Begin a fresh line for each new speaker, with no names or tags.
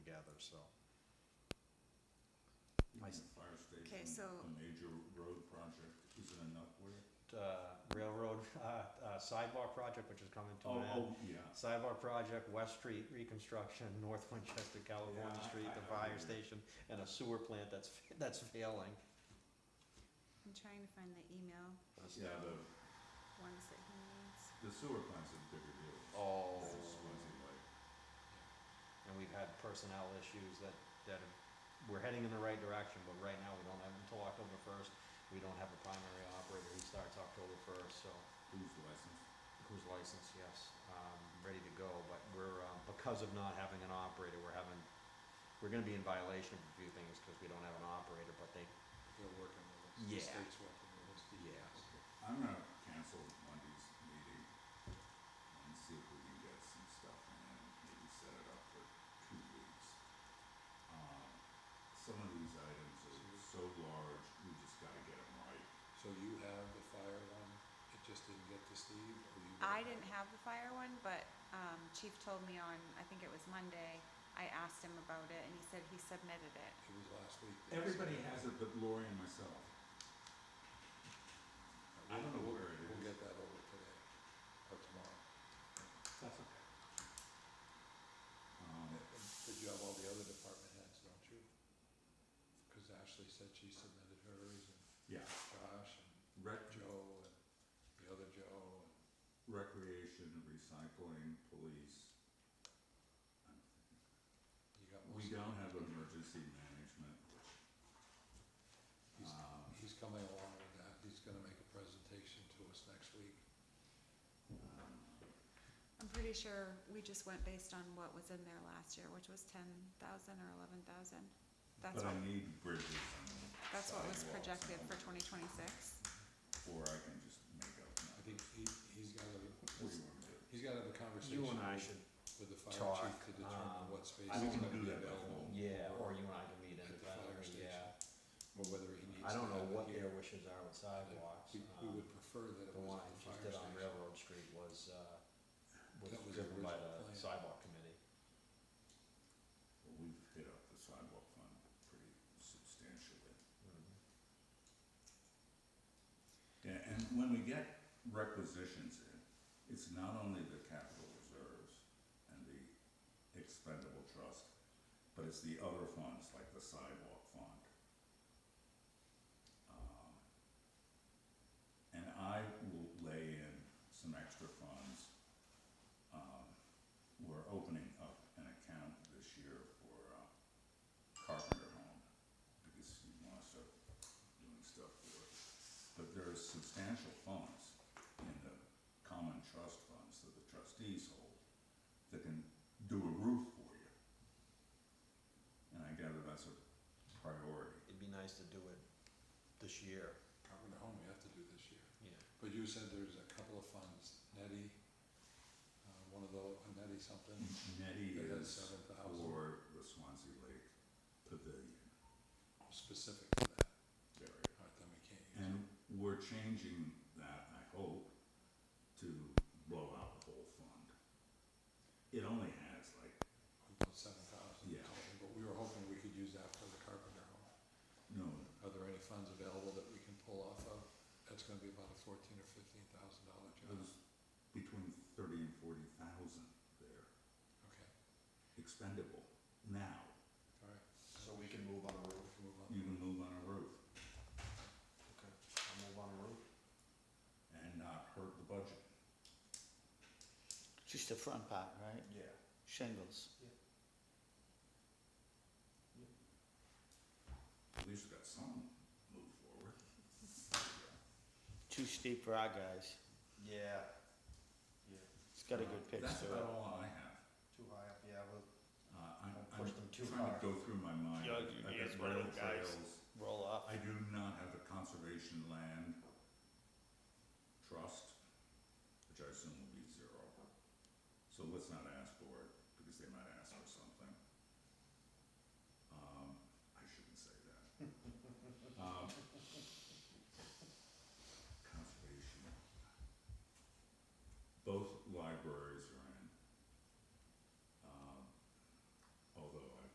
so.
Even
I s-
the fire station,
Okay, so-
a major road project, isn't enough where?
uh, railroad, uh, uh, sidebar project, which is coming to an
Oh,
end.
oh, yeah.
Sidebar project, West Street reconstruction, North Winchester, California
Yeah, I-
Street,
I-
the
I
fire
remember.
station, and a sewer plant that's, fa- that's failing.
I'm trying to find the email
That's-
Yeah, the,
ones that he needs.
the sewer plant's a bigger deal.
Oh,
It's just Swansea Lake.
and we've had personnel issues that, that have- we're heading in the right direction, but right now we don't have until October first. We don't have a primary operator. He starts October first, so
Who's licensed?
who's licensed, yes, um, ready to go, but we're, um, because of not having an operator, we're having, we're gonna be in violation of a few things because we don't have an operator, but they,
They're working with us, the
Yeah.
state's working with us.
Yeah.
I'm gonna cancel Monday's meeting and see if we can get some stuff in and maybe set it up for two weeks. Um, some of these items are so large, we just gotta get them right.
So you have the fire one, it just didn't get to Steve, or you? don't
I
have-
didn't have the fire one, but, um, chief told me on, I think it was Monday, I asked him about it and he said he submitted it.
It was last week. that he
Everybody
said-
has it but Lori and myself. I don't know where it is.
We'll get that over today, or tomorrow.
That's okay. Um,
But you have all the other department heads, don't you? Cause Ashley said she submitted hers and
yeah,
Josh
rec,
and Joe and the other Joe and
recreation, recycling, police. I'm thinking
you got
We
most. of
don't
them.
have emergency management,
He's,
um,
he's coming along with that. He's gonna make a presentation to us next week.
um,
I'm pretty sure we just went based on what was in there last year, which was ten thousand or eleven thousand. That's
but I
what,
need bridges and
that's what was
sidewalks
projected
and-
for twenty twenty-six.
Or I can just make up. my-
I think he, he's gotta,
What do you want to do?
he's gotta have a conversation
you and I
with-
should,
with the fire
talk,
chief to determine
um,
what space
I
is
don't
gonna
do
be
that by
available.
phone.
yeah, or you and I can meet
At the fire
independently,
station.
yeah.
Or whether he needs to
I don't know
have it
what
here.
their wishes are with sidewalks.
We, we
um,
would prefer that it
The
was
one I
at the
just did
fire
on
station.
Railroad Street was, uh, was
That was the
driven by
original
the
plan.
sidewalk committee.
Well, we've hit up the sidewalk fund pretty substantially.
Mm-hmm.
Yeah, and when we get requisitions in, it's not only the capital reserves and the expendable trust, but it's the other funds, like the sidewalk fund. Um, And I will lay in some extra funds. Um, We're opening up an account this year for uh, Carpenter Home, because he wants to start doing stuff for it but there is substantial funds in the common trust funds that the trustees hold that can do a roof for you. And I gather that's a priority.
It'd be nice to do it this year.
Carpenter Home, we have to do this year.
Yeah.
But you said there's a couple of funds, Netty, uh, one of those, Netty something,
Nettie
They had
is
7,000.
for the Swansea Lake Pavilion
specific to that.
area.
All right, then we can't use it.
And we're changing that, I hope, to blow out the whole fund. It only has like,
We put seven thousand
Yeah.
total, but we were hoping we could use that for the Carpenter Home.
no,
Are there any funds available that we can pull off of? That's gonna be about a fourteen or fifteen thousand dollar
it
job.
was between thirty and forty thousand there.
Okay,
expendable now.
all right.
So we can move on a
We
roof.
can move on.
You can move on a roof
Okay. I'll move on a roof.
and not hurt the budget.
Just the front part, right?
Yeah.
Shingles.
At least we got some move forward.
Too steep for our guys.
Yeah. Yeah.
It's got a good pitch
That's
to it.
about all I have.
Too high up, yeah, well.
Uh, I'm,
Don't push them too
I'm trying
hard.
to go through my mind.
Yeah, you-
I've
you
got
just one of
rail
them guys.
trails.
Roll off.
I do not have the conservation land Um, Um,